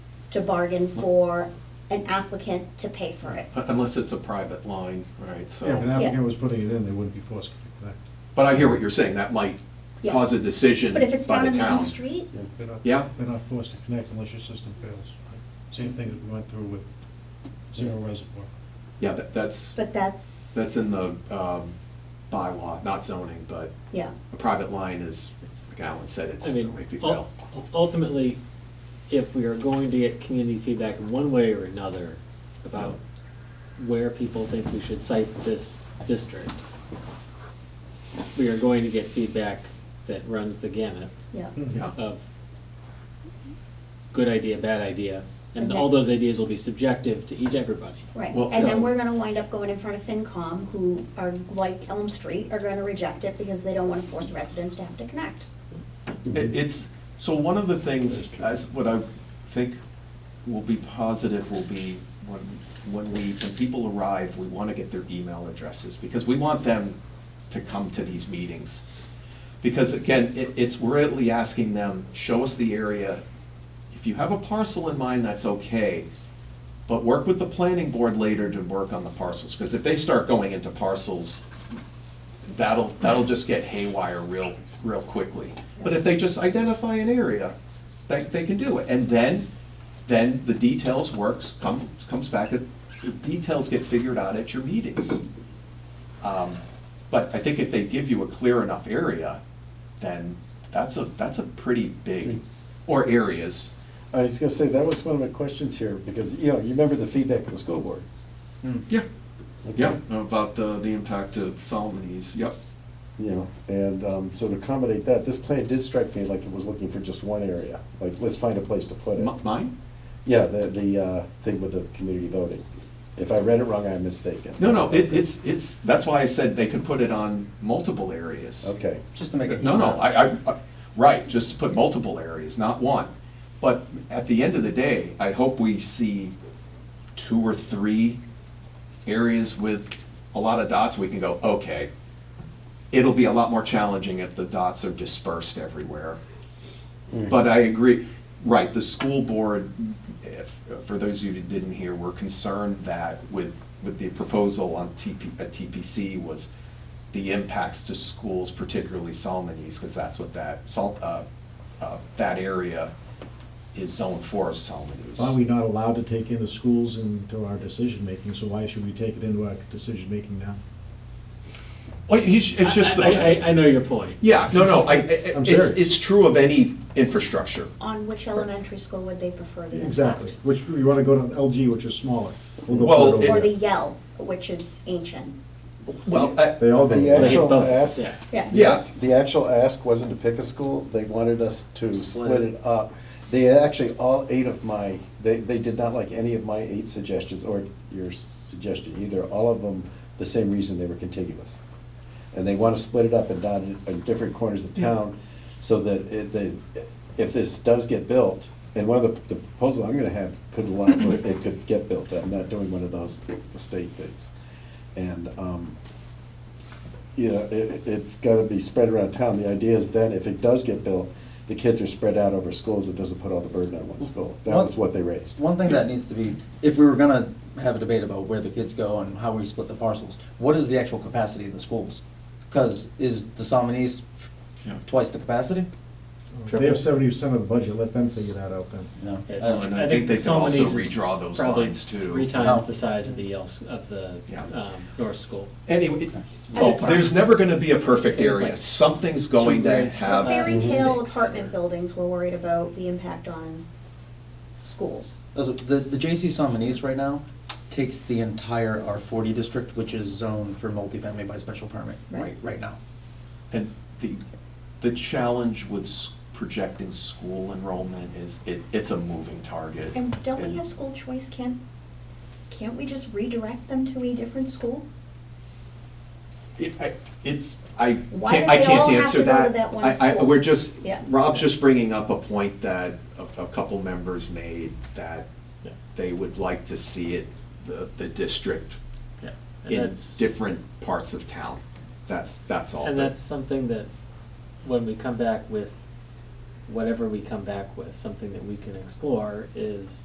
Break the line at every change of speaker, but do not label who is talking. to bargain for an applicant to pay for it.
Unless it's a private line, right,
Yeah, if an
so,
applicant was putting it in, they wouldn't be forced to connect.
but I hear what you're saying, that might
Yeah.
cause a decision by
But if
the
it's down a main
town.
street,
They're not-
Yeah.
They're not forced to connect unless your system fails. Same thing that we went through with Zero Reservoir.
Yeah, that, that's,
but that's.
that's in the, um, bylaw, not zoning, but
Yeah,
a private line is, like Alan said, it's
I mean,
only if you
ul-
fail.
ultimately, if we are going to get community feedback in one way or another about where people think we should cite this district, we are going to get feedback that runs the gamut
yeah.
Yeah,
of good idea, bad idea, and
Okay.
all those ideas will be subjective to each everybody.
Right,
Well,
and
so-
then we're gonna wind up going in front of FinCom, who are, like Elm Street, are gonna reject it because they don't wanna force residents to have to connect.
it, it's, so one of the things, as, what I think will be positive will be when, when we, when people arrive, we wanna get their email addresses, because we want them to come to these meetings. Because again, it, it's really asking them, show us the area. If you have a parcel in mind, that's okay, but work with the planning board later to work on the parcels, because if they start going into parcels, that'll, that'll just get haywire real, real quickly. But if they just identify an area, they, they can do it, and then, then the details works, comes, comes back, the details get figured out at your meetings. Um, But I think if they give you a clear enough area, then that's a, that's a pretty big, or areas,
I was gonna say, that was one of my questions here, because, you know, you remember the feedback from the school board?
Yeah,
okay?
yeah, about the, the impact of Solomon's, yep.
You know, and, um, so to accommodate that, this plan did strike me like it was looking for just one area, like, let's find a place to put it.
M- Mine?
Yeah, the, the, uh, thing with the community voting. If I read it wrong, I'm mistaken.
No, no, it, it's, it's, that's why I said they could put it on multiple areas.
Okay,
Just to make it.
No, no,
easier.
I, I, I- right, just to put multiple areas, not one. But at the end of the day, I hope we see two or three areas with a lot of dots, we can go, okay. It'll be a lot more challenging if the dots are dispersed everywhere. But I agree, right, the school board, if- for those of you who didn't hear, were concerned that with, with the proposal on uh, TP, at TPC was the impacts to schools, particularly Solomon East, because that's what that, Sol, uh, uh, that area is zoned for Solomon East.
Are we not allowed to take into schools into our decision-making, so why should we take it into our decision-making now?
Well, he sh- it's just. the-
I, I- I, I know your point.
Yeah, no, no, I, it's,
I'm serious.
it's true of any infrastructure.
On which elementary school would they prefer the impact?
Exactly, which, you wanna go to LG, which is smaller. We'll go
Well,
put it
it-
over
Or the
there.
Yell, which is ancient.
Well, I-
They all go. over
The
there.
They hit
Actual
both,
ask-
yeah.
yeah,
the actual ask wasn't to pick a school, they wanted us to
Split
split
it.
it up. They actually, all eight of my, they, they did not like any of my eight suggestions, or your suggestion either, all of them, the same reason they were contiguous. And they want to split it up and dot it in different corners of town, so that it, they, if this does get built, and one of the, the proposal I'm gonna have could allow, for it it could get built, I'm not doing one of those, the state things. And, um, you know, it, it's gotta be spread around town. The idea is then, if it does get built, the kids are spread out over schools, it doesn't put all the burden on one school. That was what they raised.
One thing that needs to be, if we were gonna have a debate about where the kids go and how we split the parcels, what is the actual capacity of the schools? Because is the Salmon East
Yeah.
twice the capacity?
They have seventy percent of the budget, let them figure that out then.
No. I
It's-
don't
Oh, And
know.
I think they can
Solomon
also
East is
redraw those
probably
lines, too.
Three times
Oh.
the size of the else, of the,
Yeah.
um, North School.
anyway,
Okay.
oh, there's never gonna be a perfect
It's
area.
like
Something's going
two
to
grades per
have.
Fairy
Mhm.
tale
six.
apartment buildings were worried about the impact on schools.
Also, The, the JC Salmon East right now takes the entire R forty district, which is zoned for multifamily by special permit, right,
Right.
right now.
And the, the challenge with s- projecting school enrollment is it, it's a moving target.
And don't we
And-
have school choice? Can't, can't we just redirect them to a different school?
It, I, it's, I
Why
can't,
do
I
they all
can't
have
answer
to go to
that.
that one
I, I,
school?
we're just,
Yeah.
Rob's just bringing up a point that a, a couple members made that
Yeah.
they would like to see it, the, the district
Yeah. And
in
that's-
different parts of town. That's, that's all.
And
But-
that's something that, when we come back with whatever we come back with, something that we can explore is